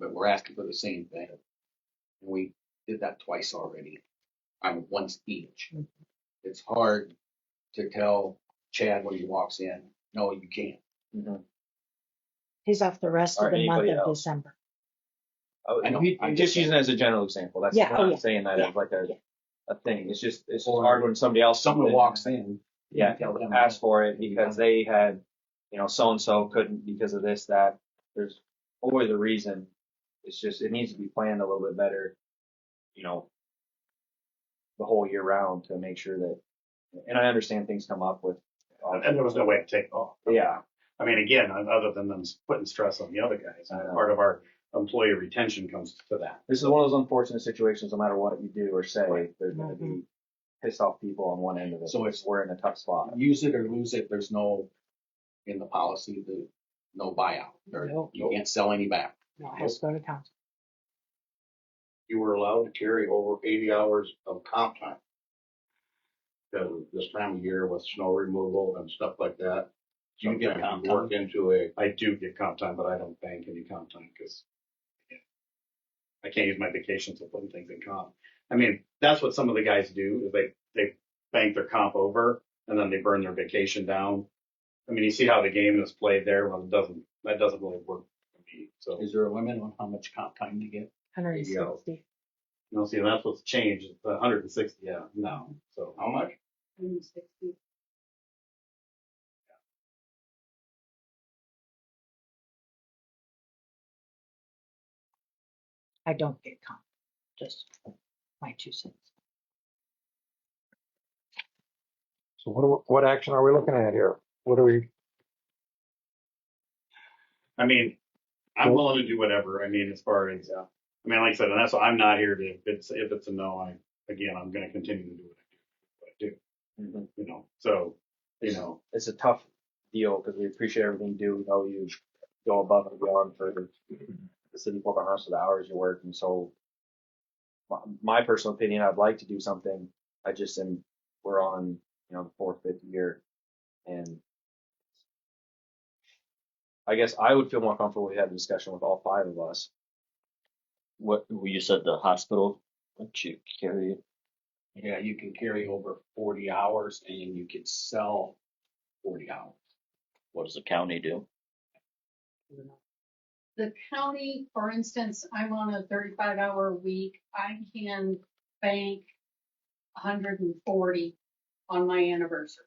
we're asking for the same thing. And we did that twice already. I'm once each. It's hard to tell Chad when he walks in, no, you can't. He's off the rest Or of the month anybody of else. December. Oh, I know. he- I'm I'm just just using it as a general example. That's Yeah, I'm oh, not yeah, saying that yeah, as like a, yeah. a thing. It's just it's Or- hard when somebody else Someone comes in walks in. and, yeah tell them, ask for it Maybe because not. they had you know so and so couldn't because of this that. There's always a reason. It's just it needs to be planned a little bit better. You know, the whole year round to make sure that. And I understand things come up with. And and there was no way to take it off. Yeah. I mean, again, on- other than them putting stress on the other guys, I know. part of our employee retention comes to that. This is one of those unfortunate situations, no matter what you do or say, Right. there's gonna Mm-hmm. be pissed off people on one end of it. So it's- we're in a tough spot. Use it or lose it. There's no, in the policy, the, no buyout. There- No. You can't sell any back. No, it has to go to council. you were allowed to carry over eighty hours of comp time. Because this time of year with snow removal and stuff like that. Do you get sometimes comp you Work into a, I do get comp time, but I don't bank any comp time because I can't use my vacations to put things in comp. I mean, that's what some of the guys do is they, they bank their comp over and then they burn their vacation down. I mean, you see how the game is played there. Well, it doesn't, that doesn't really work for me. So, you Is there a limit on how much comp time they get? Hundred and sixty. know, see, that's what's changed. It's 160. Yeah, no. So how much? I don't get comp, just my two cents. So what, do- what action are we looking at here? What are we, I mean, I'm willing to do whatever. I mean, as far as, uh, I mean, like I said, and that's why I'm not here to, if it's, if it's a no, I, again, I'm going to continue to do what I do, Mm-hmm. Mhm. what I do, you know, so, you know, It's a tough deal because we appreciate everything you do. We know you go above and beyond for the city for the rest of the hours you work. And so my, my personal opinion, I'd like to do something. I just am, we're on, you know, the fourth, fifth year. And I guess I would feel more comfortable if we had a discussion with all five of us. What well, you said the hospital lets you carry it. Yeah, you can carry over forty hours and you can sell forty hours. What does the county do? the county, for instance, I'm on a thirty-five hour week, I can bank hundred and forty on my anniversary.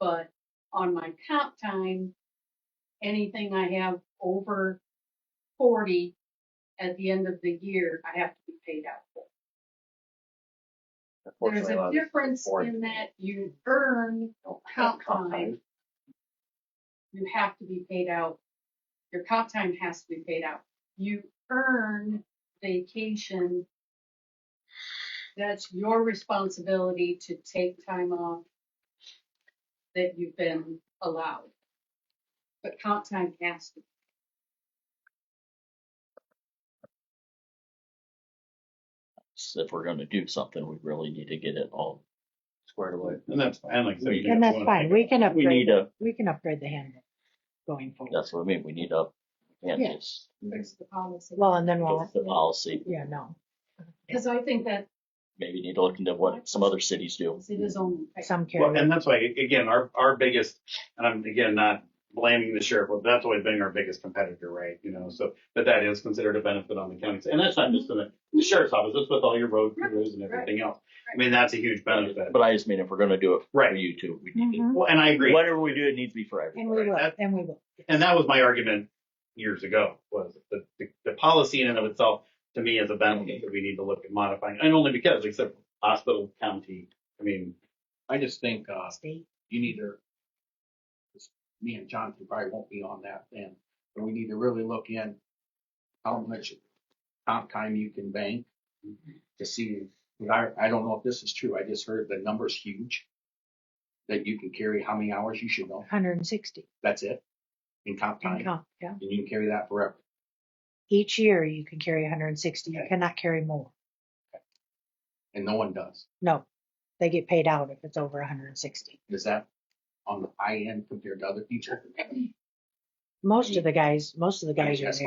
But on my comp time, anything I have over forty at the end of the year, I have to be paid out for. There's Unfortunately, a lot of- difference afford in that you earn don't have comp comp time. You have to be paid out, your comp time has to be paid out. You earn vacation. That's your responsibility to take time off that you've been allowed. But comp time has to, So if we're gonna do something, we really need to get it all. squared away. and that's, and like I said. you And guys that's wanna fine, take we can We upgrade, need to, we can upgrade the handbook going forward. that's what I mean, we need to, and Yeah. just fix the policy. Well, and then we'll, get the policy, yeah, no, Because I think that maybe need to look into what some other cities do. it is only. fair. some Well, carry. and that's why, again, our, our biggest, and I'm again not blaming the sheriff, but that's always been our biggest competitor, right? You know, so, but that is considered a benefit on the county. And that's not just in the, the sheriff's office, that's with all your road crews and everything else. I mean, that's a huge benefit. But I just mean if we're gonna do it for Right. you two, we need to, Mhm. Well, and I agree. whatever we do, it needs to be for And everyone. we will, that- and we will. And that was my argument years ago, was the, the, the policy in and of itself, to me, is a benefit that we need to look at modifying. And only because, like I said, hospital, county, I mean, I just think, uh, State. you need to, 'cause me and Jonathan probably won't be on that then, but we need to really look in how much comp time you can bank to see, 'cause I, I don't know if this is true, I just heard the number's huge. That you can carry how many hours you should know, Hundred and sixty that's it, in comp in time, and comp, yeah. you can carry that forever. Each year you can carry hundred and sixty, you Okay. cannot carry more. And no one does. No, they get paid out if it's over hundred and sixty. Is that on the high end compared to other people? Most of the guys, most of the guys are Yes.